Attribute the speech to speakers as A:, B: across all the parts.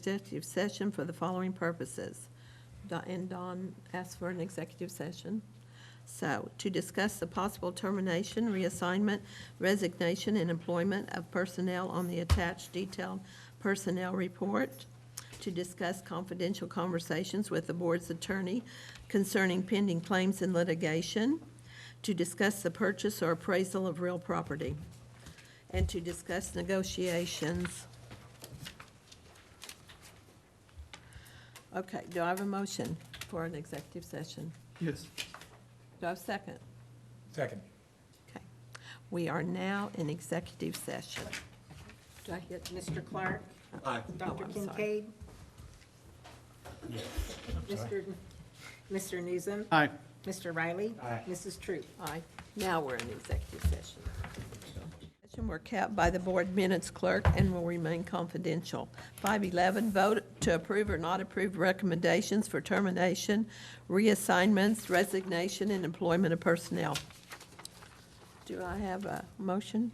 A: executive session for the following purposes. Don- And Don asked for an executive session. So, to discuss the possible termination, reassignment, resignation, and employment of personnel on the attached detailed personnel report, to discuss confidential conversations with the board's attorney concerning pending claims and litigation, to discuss the purchase or appraisal of real property, and to discuss negotiations. Okay, do I have a motion for an executive session?
B: Yes.
A: Do I have a second?
C: Second.
A: Okay. We are now in executive session.
D: Do I hit Mr. Clark?
C: Aye.
D: Dr.
A: I'm sorry.
D: Kincaid? Mr. Mr. Newsom?
B: Aye.
D: Mr. Riley?
C: Aye.
D: Mrs. Troop?
A: Aye. Now we're in executive session. Session were kept by the board minutes clerk and will remain confidential. 511, vote to approve or not approve recommendations for termination, reassignments, resignation, and employment of personnel. Do I have a motion?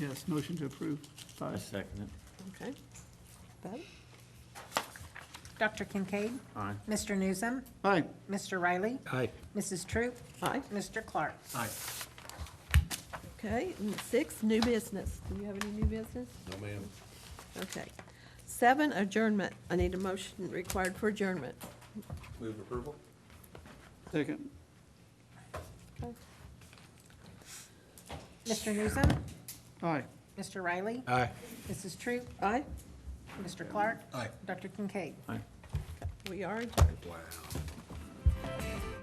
B: Yes, motion to approve. Five.
E: second it.
A: Okay. Vote?
D: Dr. Kincaid?
E: Aye.
D: Mr. Newsom?
B: Aye.
D: Mr. Riley?
C: Aye.
D: Mrs. Troop?
A: Aye.
D: Mr. Clark?
C: Aye.
A: Okay, and six, new business. Do you have any new business? No, ma'am. Okay. Seven, adjournment. I need a motion required for adjournment.
C: Move approval?
B: Second.
D: Mr. Newsom?
B: Aye.
D: Mr. Riley?
C: Aye.
D: Mrs. Troop?
A: Aye?
D: Mr. Clark?
C: Aye.
D: Dr. Kincaid?
E: Aye.
A: We are adjourned.
C: Wow.